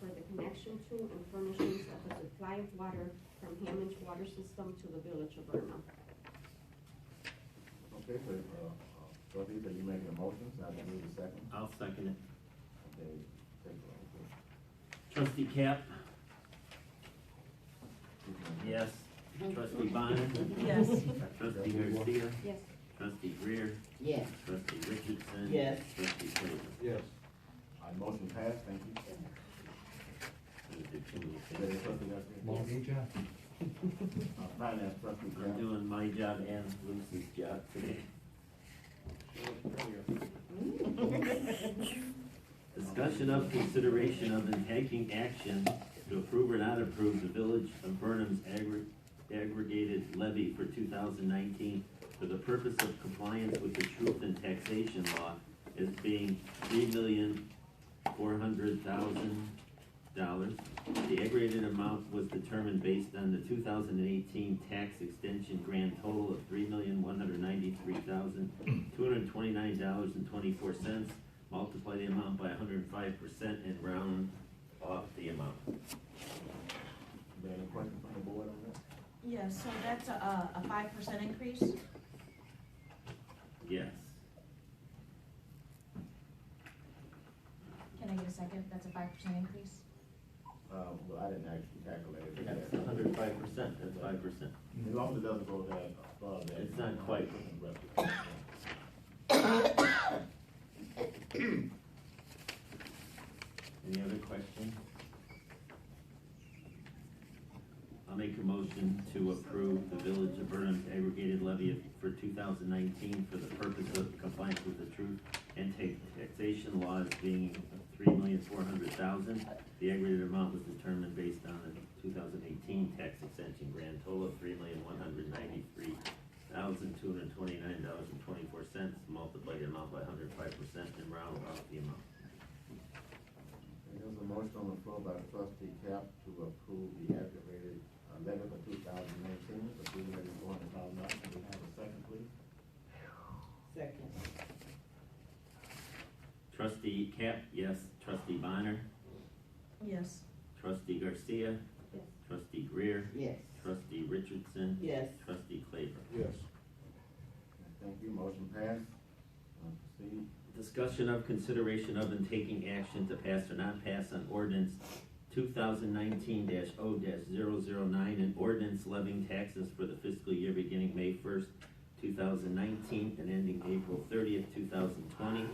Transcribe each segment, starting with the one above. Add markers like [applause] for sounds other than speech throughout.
connection to and furnishings of the supply of water from Hammond's water system to the village of Burnham. Okay, so, uh, uh, trustee, so you making a motion, so I can need a second? I'll second it. Okay, take a roll, please. Trustee Cap? Who's gonna- Yes. Trustee Bonner? Yes. Trustee Garcia? Yes. Trustee Greer? Yes. Trustee Richardson? Yes. Trustee Claybrook? Yes. All right, motion passed, thank you. Is that it, trustee Garcia? Uh, Finance trustee I'm Graham. doing my job and Lucy's job today. Discussion of consideration of and taking action to approve or not approve the Village of Burnham's aggr- aggregated levy for two thousand nineteen for the purpose of compliance with the truth in taxation law as being three million four hundred thousand dollars. The aggregated amount was determined based on the two thousand and eighteen tax extension grand total of three million one hundred ninety-three thousand two hundred twenty-nine dollars and twenty-four cents. Multiply the amount by hundred and five percent and round off the amount. Is there any question from the board on that? [laughs] Yeah, so that's a, a five percent increase? Yes. Can I get a second? That's a five percent increase? Uh, well, I didn't actually calculate it. That's hundred and five percent, that's five percent. As long as it doesn't go that above that. It's not quite. Any other questions? I'll make a motion to approve the Village of Burnham's aggregated levy of- for two thousand nineteen for the purpose of compliance with the truth and ta- taxation laws being three million four hundred thousand. The aggregated amount was determined based on the two thousand eighteen tax extension grand total of three million one hundred ninety-three thousand two hundred twenty-nine dollars and twenty-four cents. Multiply the amount by hundred and five percent and round off the amount. There's a motion on the floor by trustee Cap to approve the aggravated uh, levy for two thousand nineteen, for three million four hundred thousand dollars. Can we have a second, please? Second. Trustee Cap, yes. Trustee Bonner? Yes. Trustee Garcia? Yes. Trustee Greer? Yes. Trustee Richardson? Yes. Trustee Claybrook? Yes. Thank you, motion passed. Uh, Proceed. Discussion of consideration of and taking action to pass or not pass on ordinance two thousand nineteen 0 9 and ordinance levying taxes for the fiscal year beginning May first, two thousand nineteen and ending April thirtieth, two thousand twenty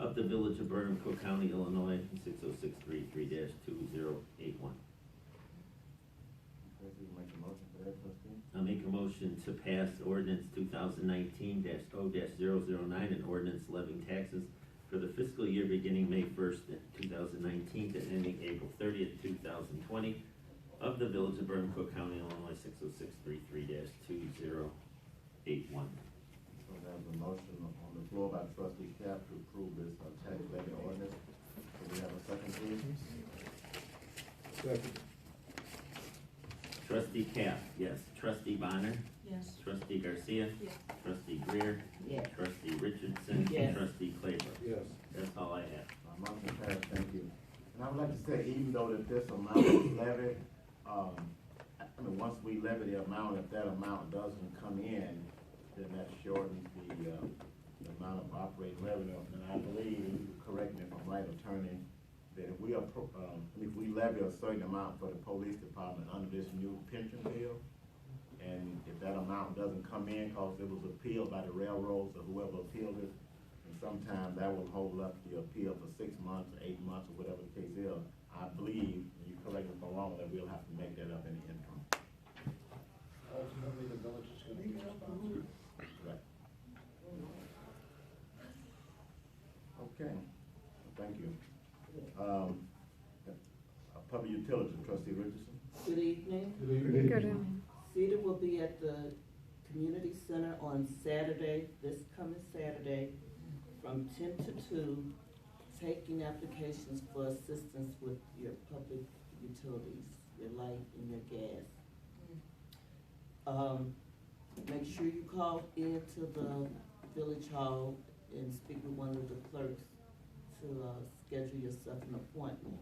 of the Village of Burnham, Cook County, Illinois, six oh six three three two zero eight one. Trustee, make a motion for that, trustee? I make a motion to pass ordinance two thousand nineteen 0 9 and ordinance levying taxes for the fiscal year beginning May first, two thousand nineteen, and ending April thirtieth, two thousand twenty, of the Village of Burnham, Cook County, Illinois, six oh six three three two zero eight one. So there's a motion on the floor by trustee Cap to approve this uh, tax levy ordinance. Can we have a second, please? Trustee Cap, yes. Trustee Bonner. Yes. Trustee Garcia. Yes. Trustee Greer. Yes. Trustee Richardson. Yes. Trustee Claybrook. Yes. That's all I have. My motion passed, thank you. And I would like to say, even though that this amount is levied, um, I I mean, once we levy the amount, if that amount doesn't come in, then that shortens the, uh, the amount of operating revenue. And I believe, and you correct me if I'm right, attorney, that if we appro, um, if we levy a certain amount for the police department under this new pension bill, and if that amount doesn't come in, cause it was appealed by the railroads or whoever appealed it, and sometimes that will hold up the appeal for six months, or eight months, or whatever the case is. I believe, and you correct me if I'm wrong, that we'll have to make that up in the interim. Ultimately, the village is gonna be responsible. Right. Okay, thank you. Um, uh, public utilities, trustee Richardson? Good evening. CETA will be at the community center on Saturday, this coming Saturday, from ten to two, taking applications for assistance with your public utilities, your light and your gas. Um, make sure you call in to the village hall and speak with one of the clerks to, uh, schedule yourself an appointment.